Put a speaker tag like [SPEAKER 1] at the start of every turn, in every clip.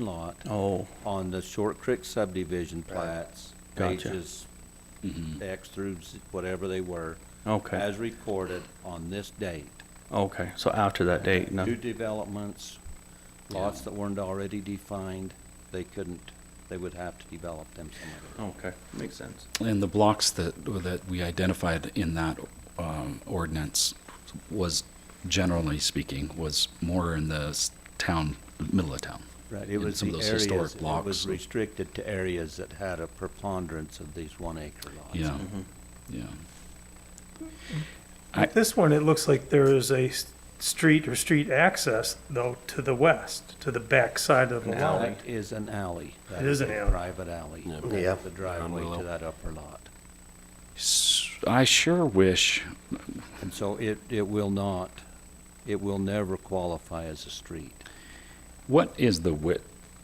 [SPEAKER 1] lot
[SPEAKER 2] Oh,
[SPEAKER 1] on the Short Creek subdivision plats,
[SPEAKER 2] Gotcha.
[SPEAKER 1] pages X through Z- whatever they were,
[SPEAKER 2] okay,
[SPEAKER 1] as recorded on this date.
[SPEAKER 2] okay, so after that date, no,
[SPEAKER 1] New developments, lots that weren't already defined, they couldn't, they would have to develop them some other way.
[SPEAKER 2] okay, makes sense.
[SPEAKER 3] And the blocks that, that we identified in that um, ordinance was, generally speaking, was more in the s- town, middle of town.
[SPEAKER 1] Right, it
[SPEAKER 3] in
[SPEAKER 1] was
[SPEAKER 3] some
[SPEAKER 1] the
[SPEAKER 3] of those
[SPEAKER 1] areas,
[SPEAKER 3] historic
[SPEAKER 1] it was
[SPEAKER 3] blocks.
[SPEAKER 1] restricted to areas that had a preponderance of these one acre lots. Mm-hmm.
[SPEAKER 3] Yeah, yeah. I-
[SPEAKER 4] With This one, it looks like there is a s- street or street access, though, to the west, to the back side of the
[SPEAKER 2] An
[SPEAKER 4] lot.
[SPEAKER 2] alley.
[SPEAKER 1] That is an alley. That
[SPEAKER 4] It is an
[SPEAKER 1] a
[SPEAKER 4] alley.
[SPEAKER 1] Private alley.
[SPEAKER 5] Yeah.
[SPEAKER 1] The driveway to
[SPEAKER 3] Unreal.
[SPEAKER 1] that upper lot.
[SPEAKER 3] S- I sure wish,
[SPEAKER 1] And so it, it will not, it will never qualify as a street.
[SPEAKER 3] what is the wit,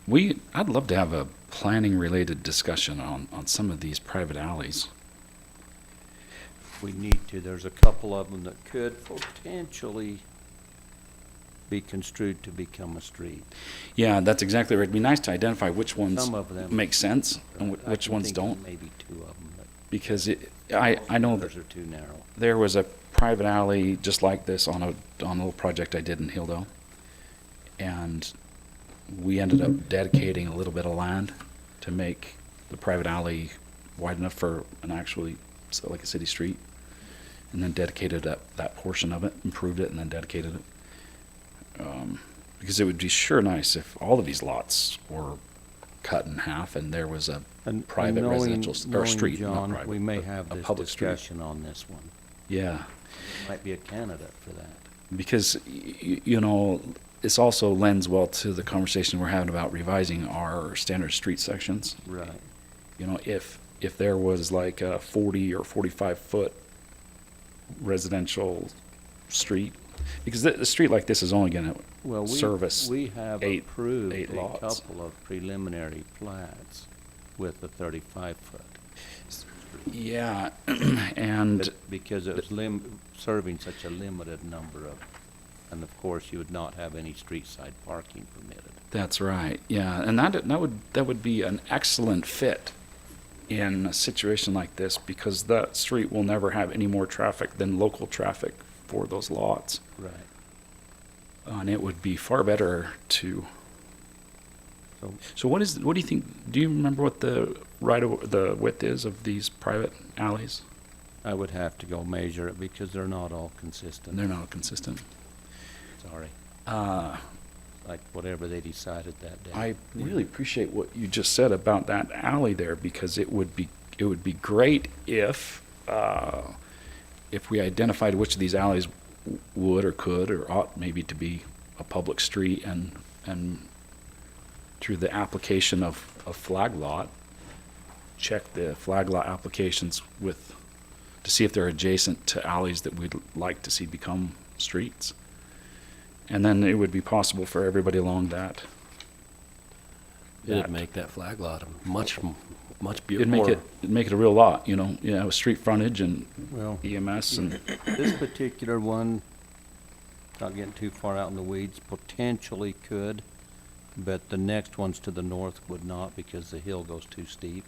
[SPEAKER 3] we, I'd love to have a planning-related discussion on, on some of these private alleys.
[SPEAKER 1] We need to, there's a couple of them that could potentially be construed to become a street.
[SPEAKER 3] Yeah, that's exactly right. It'd be nice to identify which ones
[SPEAKER 1] Some of them.
[SPEAKER 3] make sense and wh-
[SPEAKER 1] I
[SPEAKER 3] which
[SPEAKER 1] can
[SPEAKER 3] ones
[SPEAKER 1] think of
[SPEAKER 3] don't,
[SPEAKER 1] Maybe two of them, but.
[SPEAKER 3] because it, I, I know that
[SPEAKER 1] Those are too narrow.
[SPEAKER 3] there was a private alley just like this on a on a little project I did in Hilldale, and we ended up dedicating a little bit of land to make the private alley wide enough for an actually so like a city street, and then dedicated that that portion of it, improved it, and then dedicated it. Um, because it would be sure nice if all of these lots were cut in half and there was a
[SPEAKER 1] And-
[SPEAKER 3] private
[SPEAKER 1] and knowing-
[SPEAKER 3] residential s- or
[SPEAKER 1] knowing
[SPEAKER 3] street, not
[SPEAKER 1] John,
[SPEAKER 3] private,
[SPEAKER 1] We may
[SPEAKER 3] but
[SPEAKER 1] have
[SPEAKER 3] a
[SPEAKER 1] this
[SPEAKER 3] public street.
[SPEAKER 1] discussion on this one.
[SPEAKER 3] yeah.
[SPEAKER 1] Might be a candidate for that.
[SPEAKER 3] because y- you know this also lends well to the conversation we're having about revising our standard street sections
[SPEAKER 1] Right.
[SPEAKER 3] you know if if there was like a 40 or 45 foot residential street because the, the street like this is only going to
[SPEAKER 1] Well, we-
[SPEAKER 3] service
[SPEAKER 1] We have
[SPEAKER 3] eight-
[SPEAKER 1] approved a
[SPEAKER 3] eight lots.
[SPEAKER 1] couple of preliminary plats with the thirty-five foot.
[SPEAKER 3] yeah and
[SPEAKER 1] But Because it was lim, serving such a limited number of, and of course, you would not have any street side parking permitted.
[SPEAKER 3] that's right yeah and that that would that would be an excellent fit in a situation like this because that street will never have any more traffic than local traffic for those lots
[SPEAKER 1] Right.
[SPEAKER 3] and it would be far better to.
[SPEAKER 1] So,
[SPEAKER 3] So what is what do you think? Do you remember what the right of, the width is of these private alleys?
[SPEAKER 1] I would have to go measure it because they're not all consistent.
[SPEAKER 3] And they're not consistent.
[SPEAKER 1] Sorry,
[SPEAKER 3] Uh,
[SPEAKER 1] like whatever they decided that day.
[SPEAKER 3] I really appreciate what you just said about that alley there because it would be it would be great if uh, if we identified which of these alleys w- would or could or ought maybe to be a public street and and through the application of a flag lot, check the flag lot applications with to see if they're adjacent to alleys that we'd like to see become streets. And then it would be possible for everybody along that that.
[SPEAKER 5] It'd make that flag lot a much, m- much
[SPEAKER 3] It'd
[SPEAKER 5] beautiful.
[SPEAKER 3] make it, it'd make it a real lot, you know, yeah, with street frontage and
[SPEAKER 1] Well,
[SPEAKER 3] EMS and,
[SPEAKER 1] this particular one, not getting too far out in the weeds, potentially could, but the next ones to the north would not because the hill goes too steep.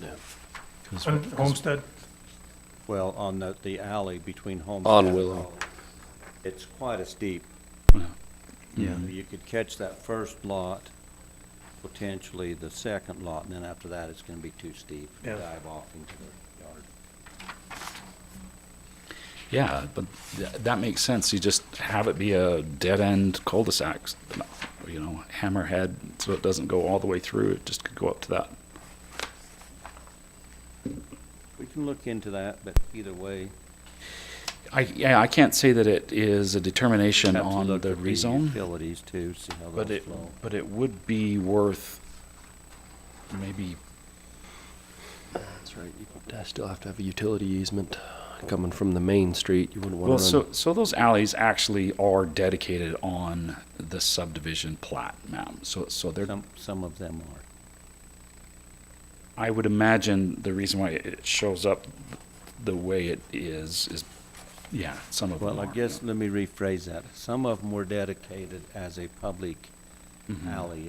[SPEAKER 5] Yeah.
[SPEAKER 4] On Homestead,
[SPEAKER 1] Well, on the, the alley between Homestead.
[SPEAKER 5] On
[SPEAKER 1] and
[SPEAKER 5] Willow.
[SPEAKER 1] Hollow, It's quite a steep.
[SPEAKER 2] Yeah.
[SPEAKER 1] You could catch that first lot, potentially the second lot, and then after that, it's gonna be too steep.
[SPEAKER 4] Yeah.
[SPEAKER 1] Dive off into the yard.
[SPEAKER 3] yeah, but tha- that makes sense. You just have it be a dead-end cul-de-sac, you know, hammerhead, so it doesn't go all the way through, it just could go up to that.
[SPEAKER 1] We can look into that, but either way,
[SPEAKER 3] I, yeah, I can't say that it is a determination
[SPEAKER 1] have to
[SPEAKER 3] on
[SPEAKER 1] look
[SPEAKER 3] the
[SPEAKER 1] at the
[SPEAKER 3] rezone,
[SPEAKER 1] utilities too, see how
[SPEAKER 3] but
[SPEAKER 1] those
[SPEAKER 3] it,
[SPEAKER 1] flow.
[SPEAKER 3] but it would be worth maybe,
[SPEAKER 5] That's right. You would still have to have a utility easement coming from the main street. You wouldn't want to.
[SPEAKER 3] well, so, so those alleys actually are dedicated on the subdivision plat map, so, so they're
[SPEAKER 1] Some, some of them are.
[SPEAKER 3] I would imagine the reason why it shows up the way it is is, yeah, some of them.
[SPEAKER 1] Well, I
[SPEAKER 3] are,
[SPEAKER 1] guess,
[SPEAKER 3] yeah. Mm-hmm.
[SPEAKER 1] let me rephrase that. Some of them were dedicated as a public alley